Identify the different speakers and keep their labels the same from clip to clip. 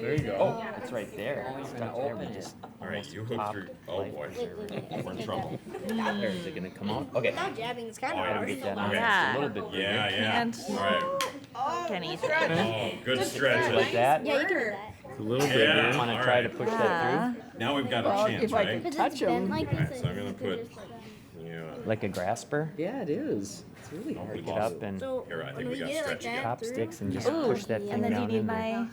Speaker 1: There you go.
Speaker 2: Oh,
Speaker 3: Yeah.
Speaker 2: it's right there. It's
Speaker 4: gonna
Speaker 2: right there. We
Speaker 4: open
Speaker 2: just
Speaker 5: All right,
Speaker 2: almost
Speaker 5: you hook
Speaker 2: popped
Speaker 5: through- oh,
Speaker 2: life
Speaker 5: boy.
Speaker 3: Wait, wait, wait, I
Speaker 2: preserver.
Speaker 3: think
Speaker 2: We're
Speaker 3: I
Speaker 2: in
Speaker 3: got
Speaker 2: trouble.
Speaker 3: it.
Speaker 2: There, is it gonna come out? Okay.
Speaker 3: Now jabbing is kind
Speaker 5: Oh,
Speaker 3: of
Speaker 5: I
Speaker 2: Gotta
Speaker 3: hard.
Speaker 2: get that
Speaker 3: Now
Speaker 2: out
Speaker 5: Okay.
Speaker 2: just
Speaker 4: Yeah.
Speaker 2: a little bit bigger.
Speaker 5: Yeah, yeah.
Speaker 4: And-
Speaker 5: All right.
Speaker 4: Kenny.
Speaker 5: Oh, good stretch.
Speaker 2: Like that?
Speaker 3: Yeah, you can do that.
Speaker 1: It's a little bit.
Speaker 5: Yeah.
Speaker 1: Yeah.
Speaker 2: Wanna
Speaker 5: all
Speaker 2: try to
Speaker 5: right.
Speaker 2: push that
Speaker 5: Now we've got
Speaker 4: Well,
Speaker 5: a chance,
Speaker 4: if I could-
Speaker 5: right?
Speaker 3: Because it's
Speaker 4: Touch 'em.
Speaker 3: been like
Speaker 5: Alright,
Speaker 3: this.
Speaker 5: so I'm gonna
Speaker 3: it's been
Speaker 5: put-
Speaker 3: just like that.
Speaker 5: Yeah.
Speaker 2: through, like a grasper.
Speaker 4: Yeah, it is. It's really
Speaker 5: Oh,
Speaker 4: hard.
Speaker 5: we
Speaker 2: Pick it
Speaker 5: lost
Speaker 2: up and
Speaker 3: So
Speaker 5: Here, I think
Speaker 3: when
Speaker 5: we
Speaker 3: we
Speaker 5: gotta
Speaker 3: get it like
Speaker 5: stretch again.
Speaker 3: that
Speaker 2: chop
Speaker 3: through-
Speaker 2: sticks and just
Speaker 4: Ooh,
Speaker 2: push that
Speaker 3: yeah.
Speaker 2: thing
Speaker 4: And then you
Speaker 2: down
Speaker 4: need
Speaker 2: in there.
Speaker 4: my.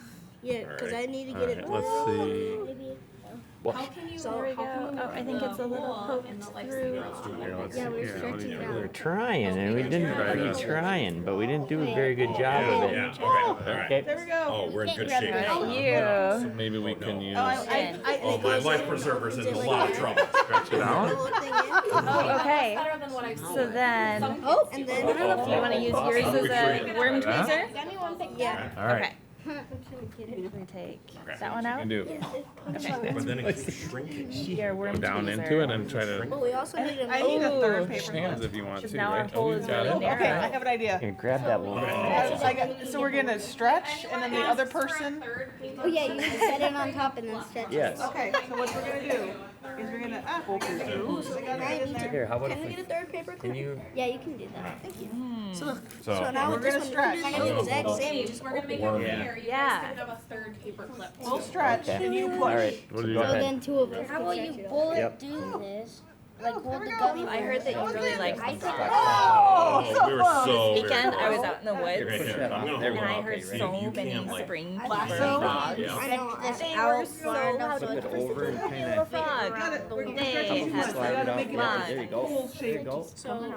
Speaker 3: Yeah, because
Speaker 5: Alright.
Speaker 3: I need to get it.
Speaker 1: Alright, let's see.
Speaker 3: Maybe-
Speaker 6: How can you
Speaker 3: So
Speaker 6: there we
Speaker 3: how can
Speaker 6: go.
Speaker 3: you
Speaker 6: Oh, I think it's a little poked through.
Speaker 5: Let's do one
Speaker 1: Here,
Speaker 5: more.
Speaker 1: let's
Speaker 3: Yeah,
Speaker 1: see.
Speaker 3: we're
Speaker 1: Here, let me-
Speaker 3: stretching
Speaker 2: We were
Speaker 3: out.
Speaker 2: trying and we didn't
Speaker 1: Try
Speaker 2: we
Speaker 1: that.
Speaker 2: trying, but we didn't do a very good
Speaker 5: Oh,
Speaker 2: job
Speaker 5: yeah,
Speaker 2: of
Speaker 5: Yeah,
Speaker 2: it.
Speaker 5: okay, all right.
Speaker 2: Okay.
Speaker 6: we go.
Speaker 5: Oh, we're in good
Speaker 3: Grab
Speaker 5: shape.
Speaker 3: it.
Speaker 5: now.
Speaker 1: So maybe we
Speaker 5: Oh, no.
Speaker 1: can use.
Speaker 6: Oh, I, I, I,
Speaker 5: Oh, my life preserver's in a lot of trouble. Stretch it
Speaker 3: The
Speaker 5: out.
Speaker 3: little thing in.
Speaker 6: oh,
Speaker 4: okay.
Speaker 6: Better than what I've seen.
Speaker 4: So then,
Speaker 3: Oh, and then.
Speaker 6: I don't know if you want to use yours
Speaker 5: Which
Speaker 6: as
Speaker 5: way?
Speaker 6: a worm
Speaker 1: That?
Speaker 6: tweezer.
Speaker 3: Yeah.
Speaker 1: All right.
Speaker 4: we can take
Speaker 5: Okay.
Speaker 4: that one
Speaker 1: You
Speaker 4: out.
Speaker 1: can do.
Speaker 5: But then it keeps shrinking.
Speaker 4: Your worm
Speaker 1: Go down
Speaker 4: tweezer.
Speaker 1: into it and try to
Speaker 3: But we also need a.
Speaker 6: I need a third paper.
Speaker 1: push hands if you want
Speaker 4: Because
Speaker 1: to.
Speaker 4: now our
Speaker 1: Right?
Speaker 4: hole is
Speaker 1: got
Speaker 4: Oh, really
Speaker 1: it.
Speaker 4: narrow.
Speaker 6: Okay, I have an idea.
Speaker 2: Here, grab that
Speaker 5: Oh.
Speaker 2: one.
Speaker 6: I was like, so we're gonna stretch and then the other person.
Speaker 3: Oh, yeah, you can set it on top and then stretch. it.
Speaker 2: Yes.
Speaker 6: Okay, so what we're gonna do is we're gonna ah, apple
Speaker 3: So
Speaker 6: peel.
Speaker 3: now I need to-
Speaker 2: Here, how about
Speaker 3: Can
Speaker 2: if
Speaker 3: we get a
Speaker 2: we
Speaker 3: third paper
Speaker 2: can
Speaker 3: clip?
Speaker 2: you
Speaker 3: Yeah, you can do that. Thank you. So look,
Speaker 5: So-
Speaker 3: so now
Speaker 6: We're
Speaker 3: with this one, we
Speaker 6: gonna
Speaker 3: can do
Speaker 6: stretch.
Speaker 3: kind of the exact Oh,
Speaker 7: Oh,
Speaker 3: same. we just
Speaker 7: We're gonna make it
Speaker 5: Worm.
Speaker 7: fair. You
Speaker 4: Yeah.
Speaker 7: guys can have a third paper clip.
Speaker 6: We'll stretch
Speaker 2: Okay.
Speaker 6: and you push.
Speaker 2: All right.
Speaker 1: What do
Speaker 2: so
Speaker 1: you
Speaker 2: go
Speaker 1: got?
Speaker 3: So
Speaker 2: ahead.
Speaker 3: then two of us.
Speaker 8: How about you both
Speaker 2: Yep.
Speaker 8: do this? Like
Speaker 6: there
Speaker 8: hold
Speaker 6: Oh, we
Speaker 8: the
Speaker 6: go.
Speaker 8: gummy.
Speaker 6: I
Speaker 8: heard
Speaker 6: that you
Speaker 8: really like
Speaker 3: I think
Speaker 6: Oh,
Speaker 5: Oh, we were so. very
Speaker 9: weekend, I was
Speaker 5: close.
Speaker 9: out in the
Speaker 5: Here,
Speaker 9: woods
Speaker 5: here, here. I'm gonna
Speaker 9: and
Speaker 5: hold
Speaker 9: I
Speaker 5: on.
Speaker 9: heard
Speaker 5: You-
Speaker 9: so
Speaker 5: you
Speaker 9: many
Speaker 5: can't, like-
Speaker 9: spring
Speaker 3: I
Speaker 9: flappers.
Speaker 3: think
Speaker 6: So-
Speaker 9: frogs.
Speaker 3: I
Speaker 5: Yeah.
Speaker 3: know. I-
Speaker 9: They
Speaker 3: I'll
Speaker 9: were
Speaker 3: learn
Speaker 9: so
Speaker 3: how to
Speaker 2: Flip it
Speaker 3: twist
Speaker 2: over and kind of
Speaker 6: Gotta- we're gonna
Speaker 9: They
Speaker 6: stretch it too
Speaker 9: have
Speaker 6: much. We
Speaker 2: slide it
Speaker 6: gotta
Speaker 2: off.
Speaker 6: make it
Speaker 2: Yeah,
Speaker 6: like
Speaker 2: there you
Speaker 6: a
Speaker 2: go.
Speaker 6: cool
Speaker 2: There you
Speaker 6: shape.
Speaker 2: go.
Speaker 3: So on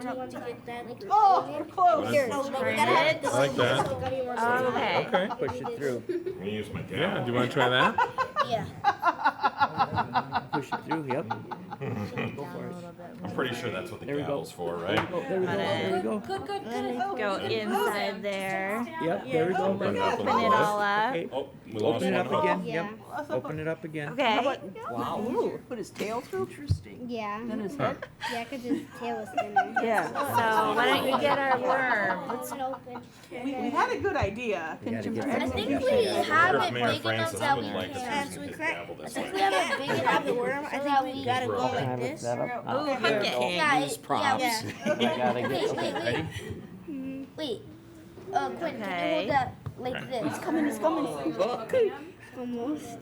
Speaker 3: top to get that. like,
Speaker 6: Oh, we're close.
Speaker 3: Here, so Oh, we gotta have this.
Speaker 1: I like that.
Speaker 4: Okay.
Speaker 1: Okay.
Speaker 2: Push it through.
Speaker 5: I'm gonna use my dad.
Speaker 1: Yeah. Do you want to try that?
Speaker 8: Yeah.
Speaker 2: Push it through. Yep.
Speaker 5: I'm pretty sure that's what the
Speaker 2: There we go.
Speaker 5: gavel's for, right?
Speaker 2: Oh, there we go. There we go.
Speaker 7: Good, good, good.
Speaker 4: Go inside there.
Speaker 2: Yep. There we go.
Speaker 6: Oh my
Speaker 1: God.
Speaker 4: Open it all up.
Speaker 2: Okay.
Speaker 5: Oh, we lost
Speaker 2: Open it up
Speaker 5: one.
Speaker 2: again.
Speaker 3: Yeah.
Speaker 2: Yep. Open it up again.
Speaker 4: Okay.
Speaker 9: Wow.
Speaker 6: Put his tail through. Interesting.
Speaker 3: Yeah,
Speaker 6: his head.
Speaker 3: yeah, cause his tail is thinner.
Speaker 4: Yeah. So why don't you get our worm?
Speaker 8: Let's open.
Speaker 6: We, we had a good idea.
Speaker 2: We gotta get
Speaker 8: I
Speaker 2: that
Speaker 8: think
Speaker 2: thing
Speaker 8: we
Speaker 2: shut
Speaker 8: have
Speaker 5: Mayor
Speaker 8: it big enough
Speaker 5: Francis
Speaker 8: that we
Speaker 5: would like us
Speaker 8: can.
Speaker 5: using
Speaker 3: we
Speaker 5: his
Speaker 3: crack-
Speaker 5: gavel this
Speaker 3: If we
Speaker 5: way.
Speaker 3: have a big enough the worm, I
Speaker 8: So
Speaker 3: think
Speaker 8: that
Speaker 3: we
Speaker 8: we-
Speaker 3: gotta go
Speaker 5: We're all
Speaker 2: Can I
Speaker 3: like
Speaker 2: lift
Speaker 3: this.
Speaker 2: that up?
Speaker 4: Ooh,
Speaker 2: Oh,
Speaker 4: hook it.
Speaker 8: Yeah,
Speaker 9: Can't use
Speaker 8: it-
Speaker 9: props.
Speaker 3: yeah.
Speaker 2: we gotta get.
Speaker 8: Wait, wait,
Speaker 2: Okay.
Speaker 8: wait.
Speaker 2: Ready?
Speaker 8: Wait. Uh, Quinn, can you
Speaker 4: Okay.
Speaker 8: hold that like this?
Speaker 3: Almost.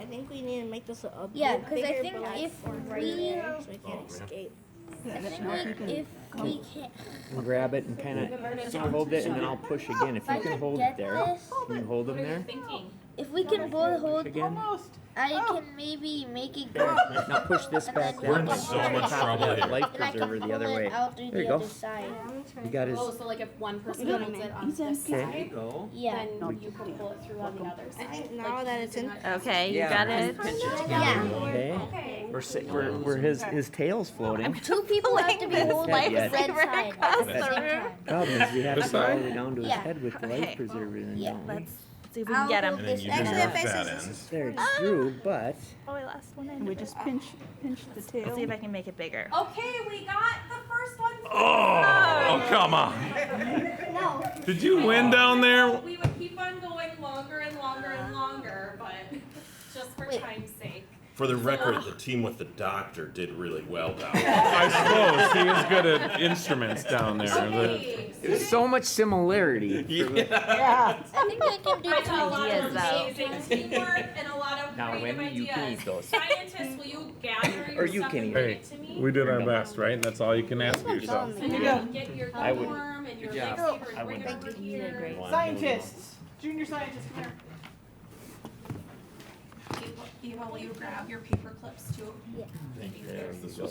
Speaker 3: I think we need to make this a a
Speaker 8: Yeah,
Speaker 3: bit
Speaker 8: 'cause I
Speaker 3: bigger,
Speaker 8: think
Speaker 3: but, like,
Speaker 8: if
Speaker 3: we're right
Speaker 8: we-
Speaker 3: there, so we can't
Speaker 2: Oh,
Speaker 3: escape.
Speaker 8: I think like if we can,
Speaker 2: Grab it and kind of hold it, and then I'll push again. If
Speaker 8: if I
Speaker 2: you can
Speaker 8: can
Speaker 2: hold it
Speaker 8: get
Speaker 2: there,
Speaker 8: this,
Speaker 2: can you hold them there?
Speaker 7: Thinking.
Speaker 8: if we can both hold,
Speaker 2: Again.
Speaker 6: Almost.
Speaker 8: I
Speaker 6: Oh.
Speaker 8: can maybe make it go.
Speaker 2: Now push this back
Speaker 8: We're in
Speaker 2: down.
Speaker 8: so
Speaker 2: on
Speaker 8: much
Speaker 2: top of
Speaker 5: trouble
Speaker 2: that
Speaker 5: here.
Speaker 2: Life
Speaker 8: And I can
Speaker 2: preserver
Speaker 8: pull
Speaker 2: the other way.
Speaker 8: it out through
Speaker 2: There you
Speaker 8: the
Speaker 2: go.
Speaker 8: other side.
Speaker 2: You got his.
Speaker 7: Oh, so like if one person holds it on this side,
Speaker 2: go.
Speaker 8: Yeah.
Speaker 7: then you can pull it through on the other
Speaker 3: I
Speaker 7: side.
Speaker 3: think now that it's in,
Speaker 4: Okay. You got it.
Speaker 8: Yeah.
Speaker 2: Okay. We're si- we're, we're his his tail's floating.
Speaker 8: Two people have to be holding
Speaker 2: life
Speaker 8: the red
Speaker 4: saver
Speaker 8: side
Speaker 4: across
Speaker 8: at the
Speaker 4: the
Speaker 8: same
Speaker 4: room.
Speaker 8: time.
Speaker 2: Problem is, we have to
Speaker 1: This
Speaker 2: go all
Speaker 1: side?
Speaker 2: the way down to his
Speaker 8: Yeah.
Speaker 2: head with the
Speaker 4: Okay.
Speaker 2: life preserver, and
Speaker 8: Yeah,
Speaker 2: don't we?
Speaker 4: Let's see if we can get
Speaker 8: I'll
Speaker 4: him.
Speaker 5: And then you
Speaker 3: Actually,
Speaker 5: just
Speaker 3: that
Speaker 5: that
Speaker 3: faces
Speaker 5: end.
Speaker 2: There it's through, but
Speaker 4: Oh, I lost one end.
Speaker 6: We
Speaker 4: of it.
Speaker 6: just pinch, pinch the
Speaker 4: Let's
Speaker 6: tail.
Speaker 4: see if I can make it bigger.
Speaker 7: Okay, we got the first one.
Speaker 1: Oh, come on. Did you win down there?
Speaker 7: We would keep on going longer and longer and longer, but just for
Speaker 8: Wait.
Speaker 7: time's sake.
Speaker 5: For the record, the team with the doctor did really well down there.
Speaker 1: I suppose he is good at instruments down there. The-
Speaker 7: Okay.
Speaker 2: there's so much similarity.
Speaker 6: Yeah.
Speaker 8: I think I can do
Speaker 7: I got a
Speaker 8: two.
Speaker 7: lot of
Speaker 4: Ideas out.
Speaker 7: amazing teamwork and a lot of
Speaker 2: Now,
Speaker 7: creative
Speaker 2: Wendy, you can
Speaker 7: ideas.
Speaker 2: eat those.
Speaker 7: Scientists, will you gather your
Speaker 2: you
Speaker 7: stuff
Speaker 2: can
Speaker 7: and
Speaker 2: eat
Speaker 7: bring
Speaker 1: Hey,
Speaker 7: it to me?
Speaker 1: We did our best, right? That's all you can ask yourself.
Speaker 7: And
Speaker 6: Yeah.
Speaker 7: then get your
Speaker 2: I would-
Speaker 7: dorm and your
Speaker 9: Good job.
Speaker 7: lightsaber and
Speaker 2: I
Speaker 7: bring
Speaker 2: would-
Speaker 7: it over here.
Speaker 6: Scientists, junior scientists, come here.
Speaker 7: Eva, will you grab your paper clips too?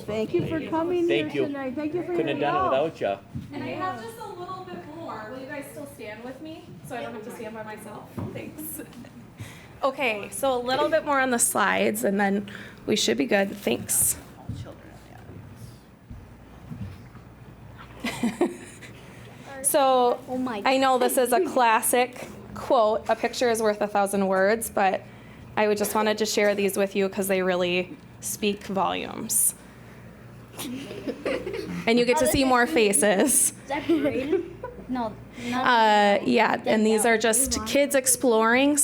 Speaker 5: Thank you for
Speaker 2: coming Thank here you. tonight.
Speaker 6: Thank you for
Speaker 2: Couldn't have done it without you.
Speaker 7: And I have just a little bit more. Will you guys still stand with me? So I don't have to stand by myself? Thanks. Okay, so a little bit more on the slides and then we should be good. Thanks. So
Speaker 8: Oh my
Speaker 7: I know this is a classic quote. A picture is worth a thousand words, but I would just wanted to share these with you because they really speak volumes. and you get to see more faces.
Speaker 8: Is that Braden? No, not
Speaker 7: Uh, yeah, and these are just kids exploring.